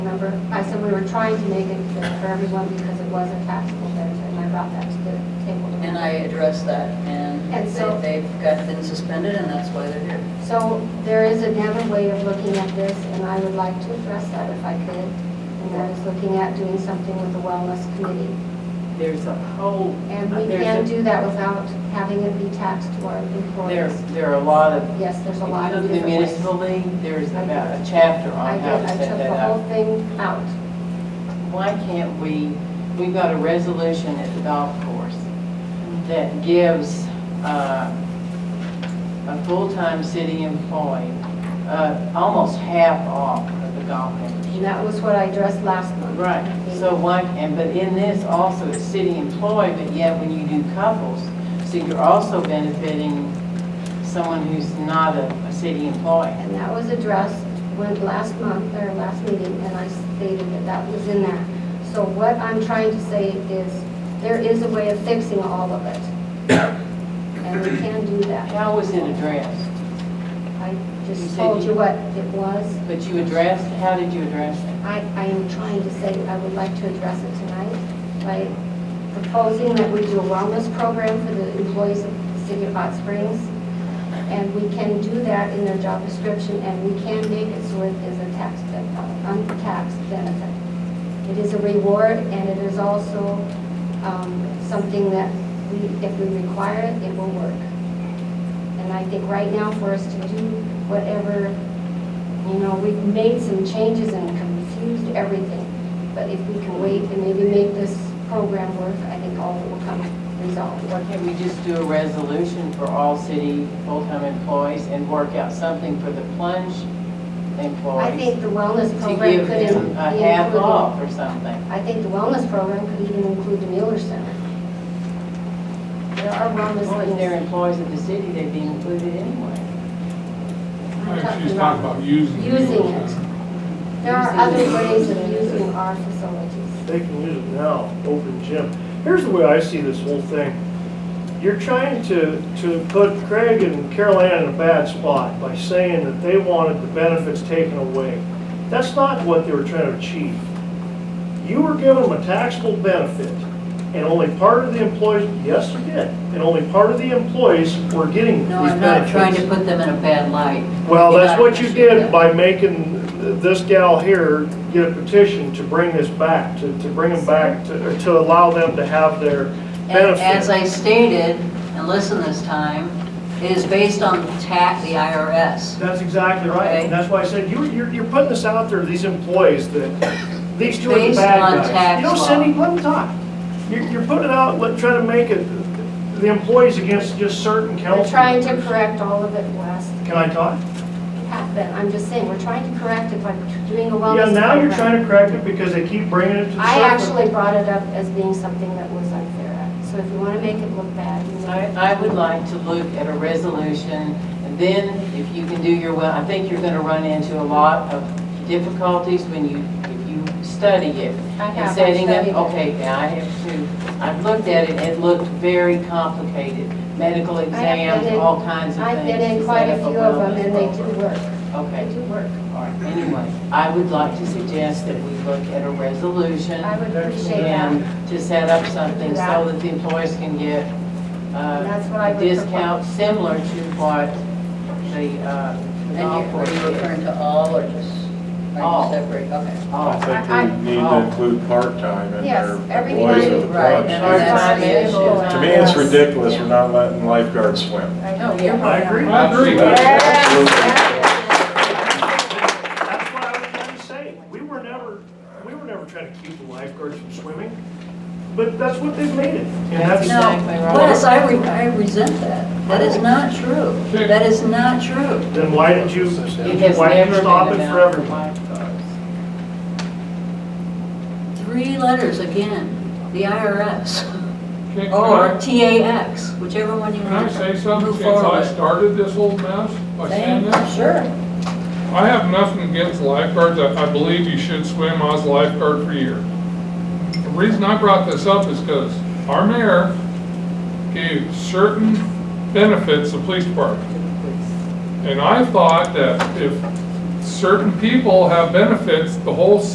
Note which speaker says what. Speaker 1: we were trying to make it fair for everyone because it was a taxable benefit, and I brought that to the table.
Speaker 2: And I addressed that, and
Speaker 1: And so-
Speaker 2: they- they've got been suspended, and that's why they're here.
Speaker 1: So there is another way of looking at this, and I would like to address that if I could. And that is looking at doing something with the wellness committee.
Speaker 3: There's a whole,
Speaker 1: And we
Speaker 3: There's
Speaker 1: can
Speaker 3: a-
Speaker 1: do that without having it be taxed to our
Speaker 3: there,
Speaker 1: employees.
Speaker 3: there are a lot of,
Speaker 1: Yes, there's
Speaker 3: if
Speaker 1: a
Speaker 3: you
Speaker 1: lot
Speaker 3: look
Speaker 1: of
Speaker 3: at the
Speaker 1: different ways.
Speaker 3: municipal league, there's about a chapter
Speaker 1: I
Speaker 3: on
Speaker 1: did,
Speaker 3: how to
Speaker 1: I
Speaker 3: set
Speaker 1: took
Speaker 3: that
Speaker 1: the whole
Speaker 3: up.
Speaker 1: thing out.
Speaker 3: Why can't we, we've got a resolution at the golf course that gives uh, a full-time city employee uh, almost half off of the golf membership.
Speaker 1: And that was what I addressed last month.
Speaker 3: Right, so why, and, but in this also, it's city employee, but yet when you do couples, so you're also benefiting someone who's not a, a city employee.
Speaker 1: And that was addressed when, last month, or last meeting, and I stated that that was in there. So what I'm trying to say is, there is a way of fixing all of it. And we can do that.
Speaker 3: How was it addressed?
Speaker 1: I
Speaker 3: You
Speaker 1: just
Speaker 3: said
Speaker 1: told you
Speaker 3: you-
Speaker 1: what it was.
Speaker 3: But you addressed, how did you address it?
Speaker 1: I, I am trying to say, I would like to address it tonight by proposing that we do a wellness program for the employees of the city of Hot Springs. And we can do that in their job description, and we can make it so it is a tax, ben- uh, untaxed benefit. It is a reward, and it is also um, something that we, if we require it, it will work. And I think right now, for us to do whatever you know, we've made some changes and confused everything, but if we can wait and maybe make this program work, I think all will come resolved.
Speaker 3: Why can't we just do a resolution for all city full-time employees and work out something for the plunge
Speaker 1: I
Speaker 3: employees?
Speaker 1: think the wellness
Speaker 3: To
Speaker 1: program
Speaker 3: give
Speaker 1: could in- be
Speaker 3: them a half
Speaker 1: included.
Speaker 3: off or something.
Speaker 1: I think the wellness program could even include the Mueller Center. There are
Speaker 3: Well, if
Speaker 1: wellness
Speaker 3: they're
Speaker 1: things.
Speaker 3: employees of the city, they'd be included anyway.
Speaker 1: I'm
Speaker 4: I think
Speaker 1: talking
Speaker 4: she's talking
Speaker 1: about-
Speaker 4: about using. the
Speaker 1: Using
Speaker 4: Mueller
Speaker 1: it.
Speaker 4: Center.
Speaker 1: There are other ways of using our facilities.
Speaker 5: They can use it now, open gym. Here's the way I see this whole thing. You're trying to, to put Craig and Carol Ann in a bad spot by saying that they wanted the benefits taken away. That's not what they were trying to achieve. You were giving them a taxable benefit, and only part of the employees, yes, you did, and only part of the employees were getting these benefits.
Speaker 2: No, I'm not trying to put them in a bad light.
Speaker 5: Well,
Speaker 2: You're
Speaker 5: that's
Speaker 2: not-
Speaker 5: what you did by making this gal here get a petition to bring this back, to, to bring them back, to, to allow them to have their
Speaker 2: And As
Speaker 5: benefit.
Speaker 2: I stated, and listen this time, it is based on the tax, the IRS.
Speaker 5: That's exactly right,
Speaker 2: Okay.
Speaker 5: and that's why I said, you, you're, you're putting this out there, these employees, that these two are the
Speaker 2: Based on
Speaker 5: bad guys.
Speaker 2: tax
Speaker 5: You know,
Speaker 2: law.
Speaker 5: Cindy, let them talk. You're, you're putting it out, let, trying to make it, the employees against just certain
Speaker 1: We're
Speaker 5: council
Speaker 1: trying to
Speaker 5: members.
Speaker 1: correct all of it, Wes.
Speaker 5: Can I talk?
Speaker 1: Have been. I'm just saying, we're trying to correct it by doing a wellness
Speaker 5: Yeah,
Speaker 1: program.
Speaker 5: now you're trying to correct it because they keep bringing it to the
Speaker 1: I
Speaker 5: selectmen.
Speaker 1: actually brought it up as being something that was unfair, so if you want to make it look bad, you know.
Speaker 3: I, I would like to look at a resolution, and then if you can do your, well, I think you're gonna run into a lot of difficulties when you, if you study
Speaker 1: I
Speaker 3: it. And
Speaker 1: have, I
Speaker 3: setting up-
Speaker 1: studied it.
Speaker 3: Okay, now I have to, I've looked at it, it looked very complicated, medical exams,
Speaker 1: been in-
Speaker 3: all kinds of things.
Speaker 1: I've been in
Speaker 3: to
Speaker 1: quite a
Speaker 3: set up
Speaker 1: few of them,
Speaker 3: wellness
Speaker 1: and they do
Speaker 3: program.
Speaker 1: work.
Speaker 3: Okay,
Speaker 1: They do work.
Speaker 3: all right, anyway, I would like to suggest that we look at a resolution.
Speaker 1: I would appreciate that.
Speaker 3: And to set up something so that the employees can get
Speaker 1: That's what
Speaker 3: uh,
Speaker 1: I
Speaker 3: a
Speaker 1: would
Speaker 3: discount similar to what the uh, the
Speaker 2: And you-
Speaker 3: golf
Speaker 2: are
Speaker 3: course
Speaker 2: you referring
Speaker 3: is.
Speaker 2: to all or just, are
Speaker 3: All.
Speaker 2: you separate? Okay.
Speaker 3: Oh,
Speaker 6: I think we need
Speaker 3: Oh.
Speaker 6: to include part-time in
Speaker 1: Yes,
Speaker 6: there.
Speaker 1: everything
Speaker 6: employees
Speaker 1: I-
Speaker 6: of the
Speaker 2: Right,
Speaker 6: club.
Speaker 2: and
Speaker 3: Part-time
Speaker 2: that's the
Speaker 3: is-
Speaker 2: issue.
Speaker 6: To me, it's
Speaker 1: Yes.
Speaker 6: ridiculous we're not letting lifeguards swim.
Speaker 3: No,
Speaker 2: you're
Speaker 5: I agree.
Speaker 4: I agree.
Speaker 5: That's what I was trying to say. We were never, we were never trying to keep the lifeguards from swimming, but that's what they've made it. And that's,
Speaker 3: No. Exactly right.
Speaker 2: Wes, I re- I resent that. That is not true. That is not true.
Speaker 5: then why did you,
Speaker 3: It has
Speaker 5: why did
Speaker 3: never
Speaker 5: you
Speaker 3: been
Speaker 5: stop it
Speaker 3: about
Speaker 5: for everyone?
Speaker 3: lifeguards.
Speaker 2: Three letters again, the IRS
Speaker 4: Okay, can
Speaker 2: or
Speaker 4: I-
Speaker 2: TAX, whichever one you
Speaker 4: Can I
Speaker 2: want.
Speaker 4: say
Speaker 2: Move
Speaker 4: something since
Speaker 2: forward.
Speaker 4: I started this whole mess by saying this?
Speaker 2: Sure.
Speaker 4: I have nothing against lifeguards. I, I believe you should swim. I was a lifeguard for a year. The reason I brought this up is because our mayor gave certain benefits to police department. And I thought that if certain people have benefits, the whole